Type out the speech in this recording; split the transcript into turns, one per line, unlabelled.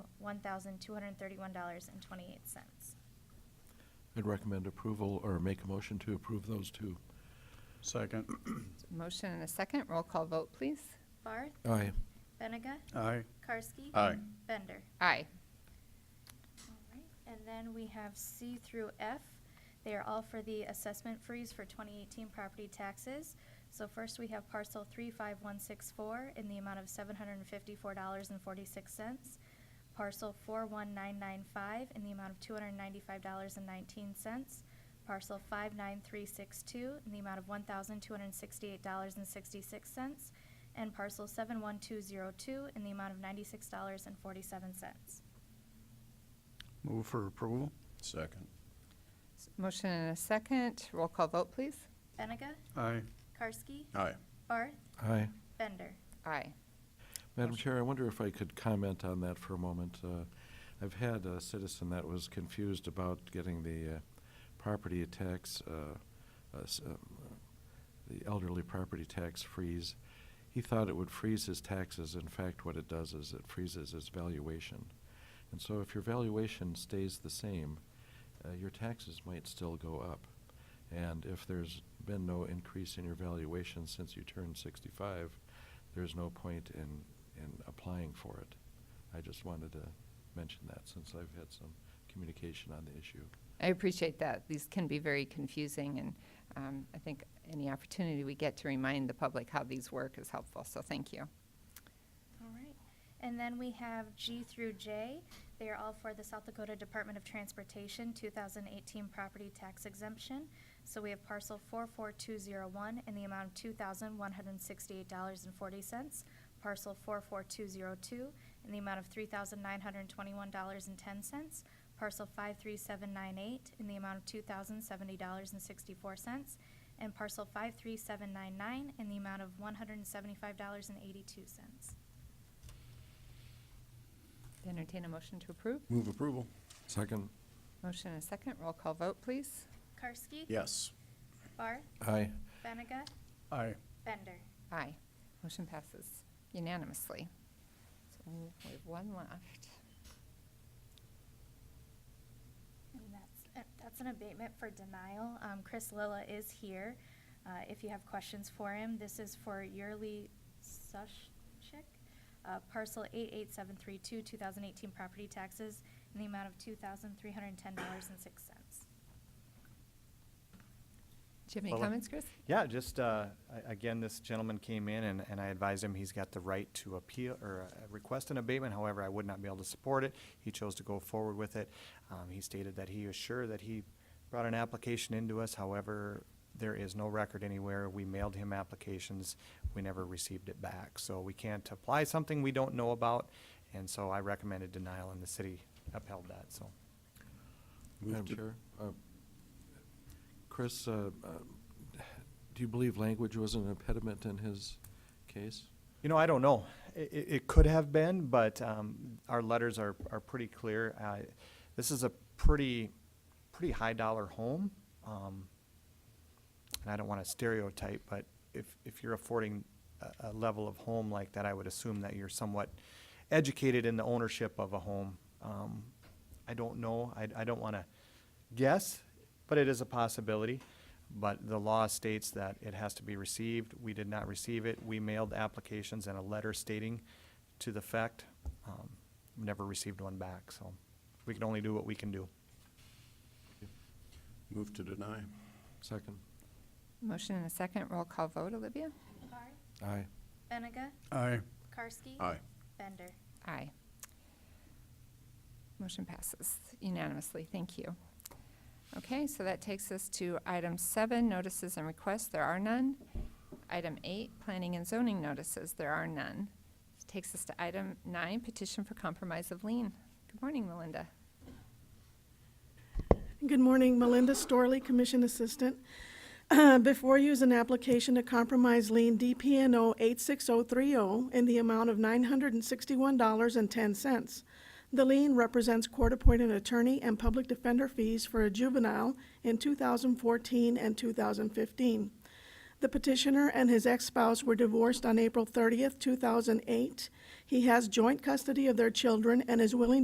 one thousand two hundred and thirty-one dollars and twenty-eight cents.
I'd recommend approval or make a motion to approve those two.
Second.
Motion and a second. Roll call vote, please.
Barth,
Aye.
Benega,
Aye.
Karski.
Aye.
Bender.
Aye.
Alright, And then we have C through F. They are all for the assessment freeze for 2018 property taxes. So first, we have parcel 35164 in the amount of $754.46. Parcel 41995 in the amount of $295.19. Parcel 59362 in the amount of $1,268.66. And parcel 71202 in the amount of $96.47.
Move for approval.
Second.
S- Motion and a second. Roll call vote, please.
Benega?
Aye.
Karski?
Aye.
Barth?
Aye.
Bender?
Aye.
Madam Chair, I wonder if I could comment on that for a moment. Uh, I've had a citizen that was confused about getting the uh, property tax, uh, uh, s- um, uh, the elderly property tax freeze. He thought it would freeze his taxes. In fact, what it does is it freezes his valuation. And so if your valuation stays the same, uh, your taxes might still go up. And if there's been no increase in your valuation since you turned 65, there's no point in, in applying for it. I just wanted to mention that since I've had some communication on the issue.
I appreciate that. These can be very confusing, and um, I think any opportunity we get to remind the public how these work is helpful, so thank you.
All right. And then we have G through J. They are all for the South Dakota Department of Transportation 2018 property tax exemption. So we have parcel 44201 in the amount of $2,168.40. Parcel 44202 in the amount of $3,921.10. Parcel 53798 in the amount of $2,070.64. And parcel 53799 in the amount of $175.82.
Entertain a motion to approve.
Move approval.
Second.
Motion and a second. Roll call vote, please.
Karski?
Yes.
Barth?
Aye.
Benega?
Aye.
Bender?
Aye. Motion passes unanimously. So we have one left.
And that's, uh, that's an abatement for denial. Um, Chris Lilla is here, uh, if you have questions for him. This is for yearly Sushchik, uh, parcel eight eight seven three two, two thousand eighteen property taxes in the amount of two thousand three hundred and ten dollars and six cents.
Do you have any
Lola?
comments, Chris?
Yeah, just, uh, a- again, this gentleman came in and, and I advised him he's got the right to appeal, or uh, request an abatement, however, I would not be able to support it. He chose to go forward with it. Um, he stated that he is sure that he brought an application into us, however, there is no record anywhere. We mailed him applications, we never received it back. So we can't apply something we don't know about, and so I recommended denial and the city upheld that, so.
Move
Madam
to-
Chair. uh, Chris, uh, um, do you believe language was an impediment in his case?
You know, I don't know. It, it, it could have been, but um, our letters are, are pretty clear. Uh, this is a pretty, pretty high dollar home. Um, and I don't want to stereotype, but if, if you're affording a, a level of home like that, I would assume that you're somewhat educated in the ownership of a home. Um, I don't know. I, I don't want to guess, but it is a possibility. But the law states that it has to be received. We did not receive it. We mailed applications and a letter stating to the fact. Um, never received one back, so we can only do what we can do.
Move to deny.
Second.
Motion and a second. Roll call vote, Olivia?
Barth?
Aye.
Benega?
Aye.
Karski?
Aye.
Bender?
Aye. Motion passes unanimously. Thank you. Okay, so that takes us to item seven, notices and requests. There are none. Item eight, planning and zoning notices. There are none. Takes us to item nine, petition for compromise of lien. Good morning, Melinda.
Good morning, Melinda Storley, Commission Assistant. Uh, Before you is an application to compromise lien DPNO 86030 in the amount of $961.10. The lien represents court-appointed attorney and public defender fees for a juvenile in 2014 and 2015. The petitioner and his ex-spouse were divorced on April 30th, 2008. He has joint custody of their children and is willing